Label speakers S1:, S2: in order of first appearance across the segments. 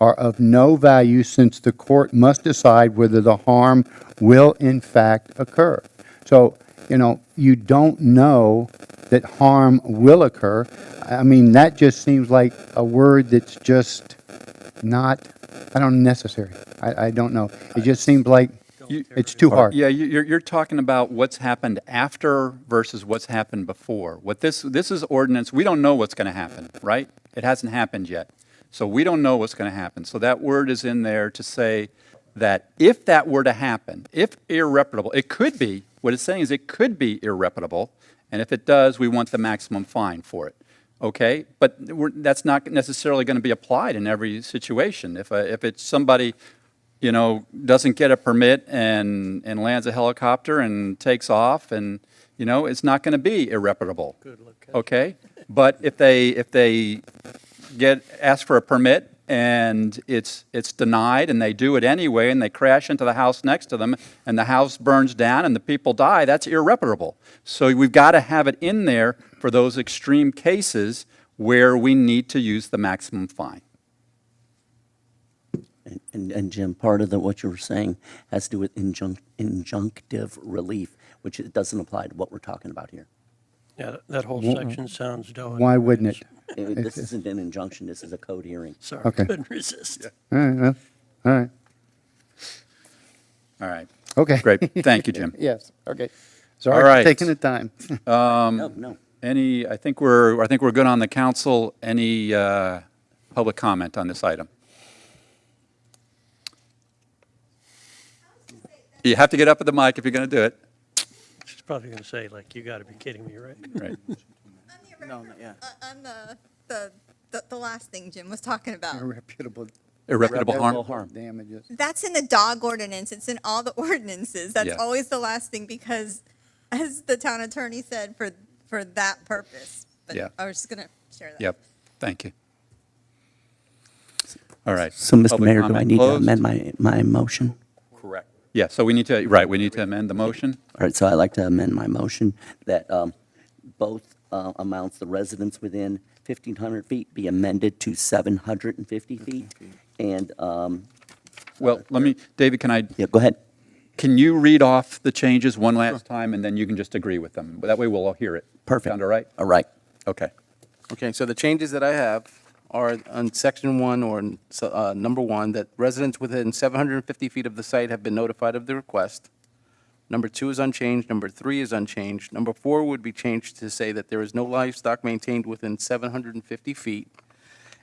S1: are of no value since the court must decide whether the harm will in fact occur. So, you know, you don't know that harm will occur. I I mean, that just seems like a word that's just not, I don't, necessary. I, I don't know. It just seems like
S2: You-
S1: it's too hard.
S2: Yeah, you- you're, you're talking about what's happened after versus what's happened before. What this, this is ordinance, we don't know what's going to happen, right? It hasn't happened yet. So we don't know what's going to happen. So that word is in there to say that if that were to happen, if irreparable, it could be, what it's saying is it could be irreparable. And if it does, we want the maximum fine for it. Okay, but we're, that's not necessarily going to be applied in every situation. If, a- if it's somebody you know, doesn't get a permit and, and lands a helicopter and takes off and, you know, it's not going to be irreparable. Good Okay? But if they, if they get, ask for a permit and it's, it's denied and they do it anyway and they crash into the house next to them and the house burns down and the people die, that's irreparable. So we've got to have it in there for those extreme cases where we need to use the maximum fine.
S3: And- And, and Jim, part of the, what you were saying has to do with injunc- injunctive relief, which it doesn't apply to what we're talking about here.
S4: Yeah, that- that whole section sounds doing.
S1: Why wouldn't it?
S3: Uh, This isn't an injunction, this is a code hearing.
S4: Sorry,
S1: Okay.
S4: couldn't resist.
S1: All right, well, all right,
S2: All right.
S1: okay.
S2: Great. Thank you, Jim.
S1: Yes, okay.
S2: All
S1: Sorry
S2: right.
S1: for taking the time.
S2: Um,
S3: No, no.
S2: Any, I think we're, I think we're good on the council. Any uh, public comment on this item? You have to get up at the mic if you're going to do it.
S4: She's probably going to say, like, you got to be kidding me, right?
S2: Right.
S3: No, not yet.
S5: On the, the, the, the last thing Jim was talking about.
S1: Irreparable
S2: Irreparable harm.
S3: harm.
S1: Damages.
S5: That's in the dog ordinance. It's in all the ordinances. That's
S2: Yeah.
S5: always the last thing because, as the town attorney said, for, for that purpose. But
S2: Yeah.
S5: I was just gonna share that.
S2: Yep. Thank you. All right.
S3: So, Mr.
S2: Public
S3: Mayor, do I
S2: comment
S3: need to
S2: closed.
S3: amend my, my motion?
S2: Correct. Yeah, so we need to, right, we need to amend the motion.
S3: All right, so I'd like to amend my motion that um, both uh, amounts, the residents within 1,500 feet be amended to 750 feet. And, um,
S2: Well, let me, David, can I,
S3: yeah, go ahead.
S2: can you read off the changes one last time and then you can just agree with them? That way we'll all hear it.
S3: Perfect.
S2: Sound all right?
S3: All right.
S2: Okay.
S6: Okay, so the changes that I have are on section one or in s- uh, number one, that residents within 750 feet of the site have been notified of the request. Number two is unchanged, number three is unchanged, number four would be changed to say that there is no livestock maintained within 750 feet,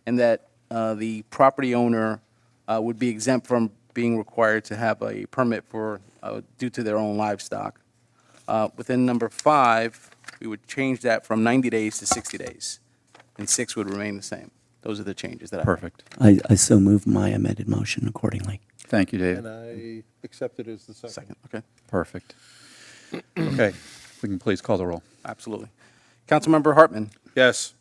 S6: and that uh, the property owner uh, would be exempt from being required to have a permit for, uh, due to their own livestock. Uh, Within number five, we would change that from 90 days to 60 days, and six would remain the same. Those are the changes that I.
S2: Perfect.
S3: I, I so move my amended motion accordingly.
S2: Thank you, David.
S7: And I accept it as the second.
S6: Second, okay,
S2: Perfect. Okay, we can please call the roll.
S6: absolutely. Councilmember Hartman,
S7: Yes.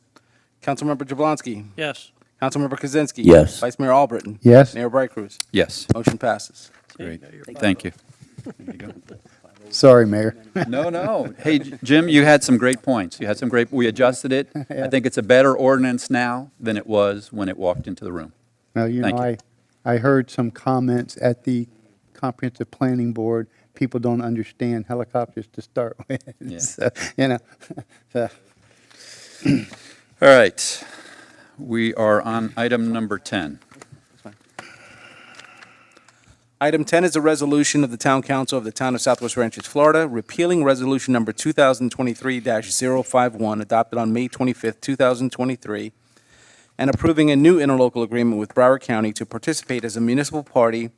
S6: Councilmember Jablonski,
S4: Yes,
S6: Councilmember Kozinski.
S3: Yes.
S6: Vice Mayor Albritton.
S1: Yes.
S6: Mayor Bright Cruz.
S2: Yes.
S6: Motion passes.
S2: Great.
S4: no, you're
S2: Thank you.
S1: Sorry, Mayor.
S2: No, no. Hey, J- Jim, you had some great points. You had some great, we adjusted it. I think it's a better ordinance now than it was when it walked into the room.
S1: Now, you know,
S2: Thank you.
S1: I, I heard some comments at the comprehensive planning board, people don't understand helicopters to start
S2: Yeah.
S1: with. So, You know, so,
S2: All right, we are on item number 10.
S6: Item 10 is a resolution of the Town Council of the Town of Southwest Ranches, Florida, repealing Resolution Number 2023-051, adopted on May 25th, 2023, and approving a new interlocal agreement with Broward County to participate as a municipal party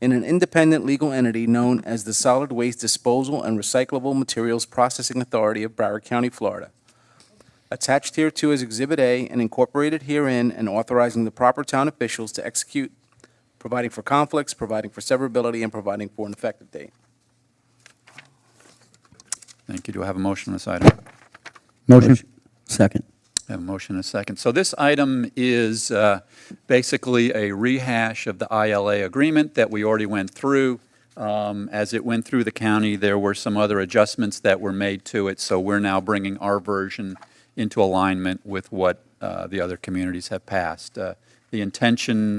S6: in an independent legal entity known as the Solid Waste Disposal and Recyclable Materials Processing Authority of Broward County, Florida. Attached hereto is Exhibit A and incorporated herein and authorizing the proper town officials to execute providing for conflicts, providing for severability, and providing for an effective date.
S2: Thank you. Do I have a motion on this item?
S1: motion,
S3: Second.
S2: I have a motion and a second. So this item is uh, basically a rehash of the ILA agreement that we already went through. Um, As it went through the county, there were some other adjustments that were made to it, so we're now bringing our version into alignment with what uh, the other communities have passed. Uh, the intention